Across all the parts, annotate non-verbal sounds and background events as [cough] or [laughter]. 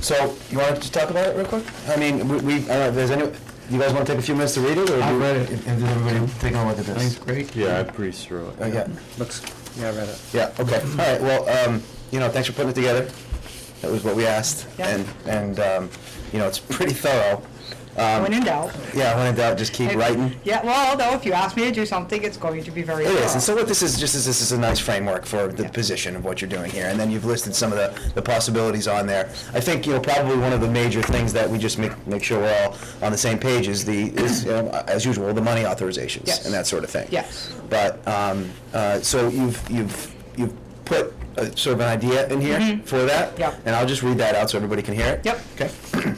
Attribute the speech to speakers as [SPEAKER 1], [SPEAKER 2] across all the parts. [SPEAKER 1] So, you want to just talk about it real quick? I mean, we- we, I don't know, if there's any, you guys want to take a few minutes to read it, or?
[SPEAKER 2] I've
[SPEAKER 1] do-
[SPEAKER 2] read it.
[SPEAKER 1] If if everybody taking a look at this?
[SPEAKER 2] Thanks, great.
[SPEAKER 3] Yeah, I breezed through it.
[SPEAKER 1] Uh, Yeah,
[SPEAKER 2] Looks, yeah, I read it.
[SPEAKER 1] yeah, okay, all right, well, um, you know, thanks for putting it together. That was what we asked.
[SPEAKER 4] Yeah.
[SPEAKER 1] And, and, um, you know, it's pretty thorough. Um,
[SPEAKER 4] When in doubt.
[SPEAKER 1] Yeah, when in doubt, just keep
[SPEAKER 4] If-
[SPEAKER 1] writing.
[SPEAKER 4] Yeah, well, although if you ask me to do something, it's going to be very
[SPEAKER 1] It is,
[SPEAKER 4] thorough.
[SPEAKER 1] and so what this is, just is, this is a nice framework for the
[SPEAKER 4] Yeah.
[SPEAKER 1] position of what you're doing here, and then you've listed some of the, the possibilities on there. I think, you know, probably one of the major things that we just make, make sure we're all on the same page is the, is, you know, as usual, the money authorizations
[SPEAKER 4] Yes.
[SPEAKER 1] and that sort of thing.
[SPEAKER 4] Yes.
[SPEAKER 1] But, um, uh, so you've, you've, you've put a, sort of an idea in here for that?
[SPEAKER 4] Mm-hmm. Yep.
[SPEAKER 1] And I'll just read that out so everybody can hear it?
[SPEAKER 4] Yep.
[SPEAKER 1] Okay.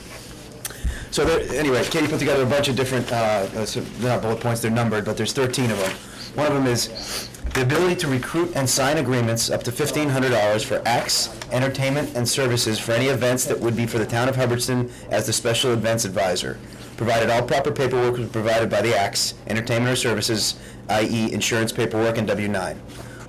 [SPEAKER 1] So there, anyway, Katie put together a bunch of different, uh, uh, so they're not bullet points, they're numbered, but there's 13 of them. One of them is the ability to recruit and sign agreements up to $1,500 for acts, entertainment, and services for any events that would be for the town of Hubbardston as the special events advisor, provided all proper paperwork was provided by the acts, entertainment or services, i.e. insurance paperwork and W-9.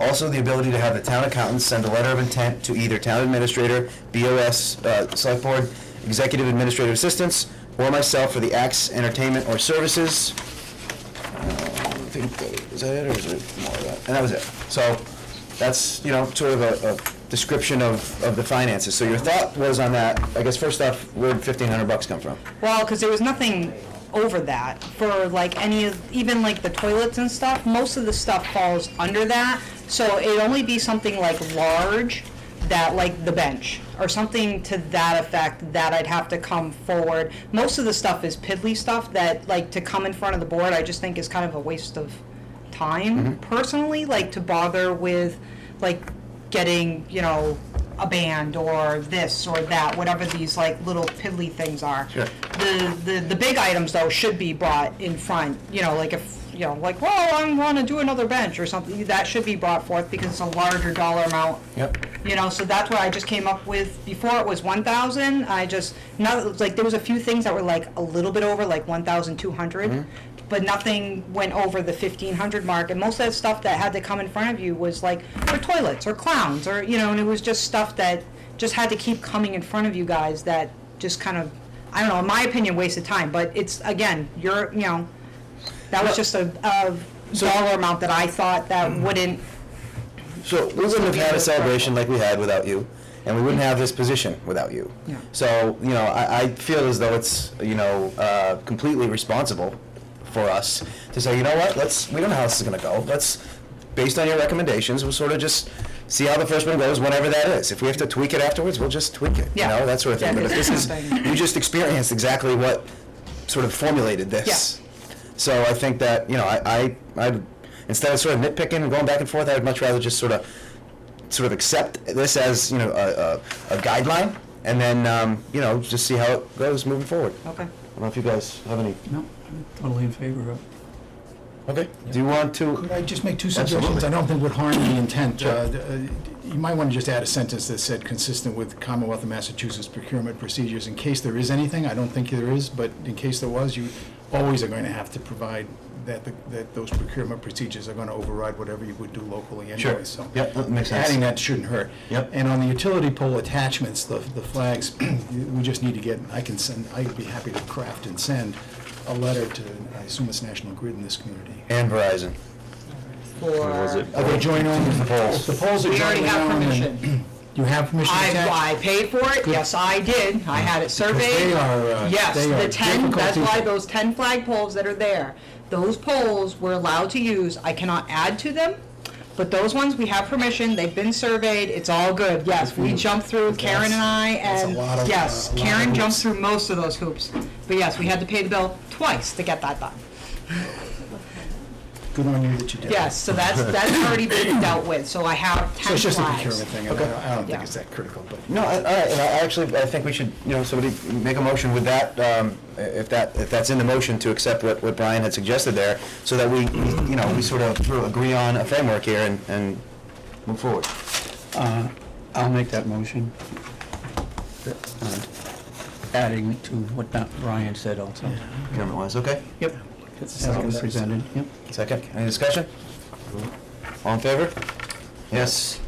[SPEAKER 1] Also, the ability to have the town accountant send a letter of intent to either town administrator, BOS, uh, select board, executive administrative assistants, or myself for the acts, entertainment, or services. Uh, I think that, is that it, or is it more of that? And that was it. So, that's, you know, sort of a, a description of, of the finances. So your thought was on that, I guess first off, where'd fifteen hundred bucks come from?
[SPEAKER 4] Well, because there was nothing over that for like any of, even like the toilets and stuff, most of the stuff falls under that. So it'd only be something like large that like the bench or something to that effect that I'd have to come forward. Most of the stuff is piddly stuff that like to come in front of the board, I just think is kind of a waste of time
[SPEAKER 1] Mm-hmm.
[SPEAKER 4] personally, like to bother with like getting, you know, a band or this or that, whatever these like little piddly things are.
[SPEAKER 1] Sure.
[SPEAKER 4] The, the, the big items though should be brought in front, you know, like if, you know, like, well, I wanna do another bench or something, that should be brought forth because it's a larger dollar amount.
[SPEAKER 1] Yep.
[SPEAKER 4] You know, so that's what I just came up with, before it was one thousand, I just, not, like, there was a few things that were like a little bit over, like one thousand two hundred,
[SPEAKER 3] Mm-hmm.
[SPEAKER 4] but nothing went over the fifteen hundred mark, and most of that stuff that had to come in front of you was like, for toilets, or clowns, or, you know, and it was just stuff that just had to keep coming in front of you guys that just kind of, I don't know, in my opinion, wasted time, but it's, again, you're, you know, that was just a, a dollar amount that I thought that
[SPEAKER 3] Mm-hmm.
[SPEAKER 4] wouldn't,
[SPEAKER 1] So we wouldn't have had a celebration like we had without you, and we wouldn't have this position without you.
[SPEAKER 4] Yeah.
[SPEAKER 1] So, you know, I, I feel as though it's, you know, uh, completely responsible for us to say, you know what, let's, we don't know how this is gonna go, let's, based on your recommendations, we'll sort of just see how the first one goes, whatever that is. If we have to tweak it afterwards, we'll just tweak it, you
[SPEAKER 4] Yeah.
[SPEAKER 1] know, that sort of thing.
[SPEAKER 4] Yeah,
[SPEAKER 1] But if this is,
[SPEAKER 4] nothing.
[SPEAKER 1] you just experienced exactly what sort of formulated this. So I think that, you know, I, I, I, instead of sort of nitpicking and going back and forth, I would much rather just sort of, sort of accept this as, you know, a, a, a guideline, and then, um, you know, just see how it goes moving forward. I
[SPEAKER 4] okay.
[SPEAKER 1] don't know if you guys have any.
[SPEAKER 2] No, I'm totally in favor of it.
[SPEAKER 1] Okay. Do you want to?
[SPEAKER 5] Could I just make two suggestions? I don't think would harm the intent. Uh, d- uh, You might want to just add a sentence that said, consistent with Commonwealth of Massachusetts procurement procedures, in case there is anything. I don't think there is, but in case there was, you always are going to have to provide that, the- that those procurement procedures are going to override whatever you would do locally anyway, so.
[SPEAKER 1] Yep, that makes sense.
[SPEAKER 5] Adding that shouldn't hurt.
[SPEAKER 1] Yep.
[SPEAKER 5] And on the utility pole attachments, the, the flags, [clears throat] we just need to get, I can send, I'd be happy to craft and send a letter to, I assume it's National Grid in this community.
[SPEAKER 1] And Verizon.
[SPEAKER 3] Was it?
[SPEAKER 5] Are they joint owned? The
[SPEAKER 1] polls.
[SPEAKER 5] The polls are
[SPEAKER 4] We already
[SPEAKER 5] jointly
[SPEAKER 4] have
[SPEAKER 5] owned. and-
[SPEAKER 4] permission.
[SPEAKER 5] [clears throat] You have permission to
[SPEAKER 4] I,
[SPEAKER 5] attach?
[SPEAKER 4] I paid for it, yes, I did, I had it surveyed.
[SPEAKER 5] they are, uh,
[SPEAKER 4] Yes,
[SPEAKER 5] they are
[SPEAKER 4] the ten, that's
[SPEAKER 5] difficult
[SPEAKER 4] why
[SPEAKER 5] to-
[SPEAKER 4] those ten flag poles that are there, those poles we're allowed to use, I cannot add to them, but those ones, we have permission, they've been surveyed, it's all good, yes, we jumped through, Karen and I,
[SPEAKER 5] that's a
[SPEAKER 4] and,
[SPEAKER 5] lot of,
[SPEAKER 4] yes,
[SPEAKER 5] uh, lot of
[SPEAKER 4] Karen jumped
[SPEAKER 5] hoops.
[SPEAKER 4] through most of those hoops. But yes, we had to pay the bill twice to get that done.
[SPEAKER 5] Good on you that you did.
[SPEAKER 4] Yes, so that's, that's already been dealt with, so I have
[SPEAKER 5] So
[SPEAKER 4] ten
[SPEAKER 5] it's just a
[SPEAKER 4] flags.
[SPEAKER 5] procurement thing, and I don't, I don't
[SPEAKER 4] Yeah.
[SPEAKER 5] think it's that critical, but.
[SPEAKER 1] No, I- all right, and I actually, I think we should, you know, somebody make a motion with that, um, if that, if that's in the motion, to accept what, what Brian had suggested there, so that we, you know, we sort of sort of agree on a framework here and, and move forward.
[SPEAKER 2] Uh, I'll make that motion. Uh, Adding to what Don- Brian said also.
[SPEAKER 1] Government wise, okay?
[SPEAKER 2] Yep. As it was presented, yep.
[SPEAKER 1] Second, any discussion? All in favor? Yes.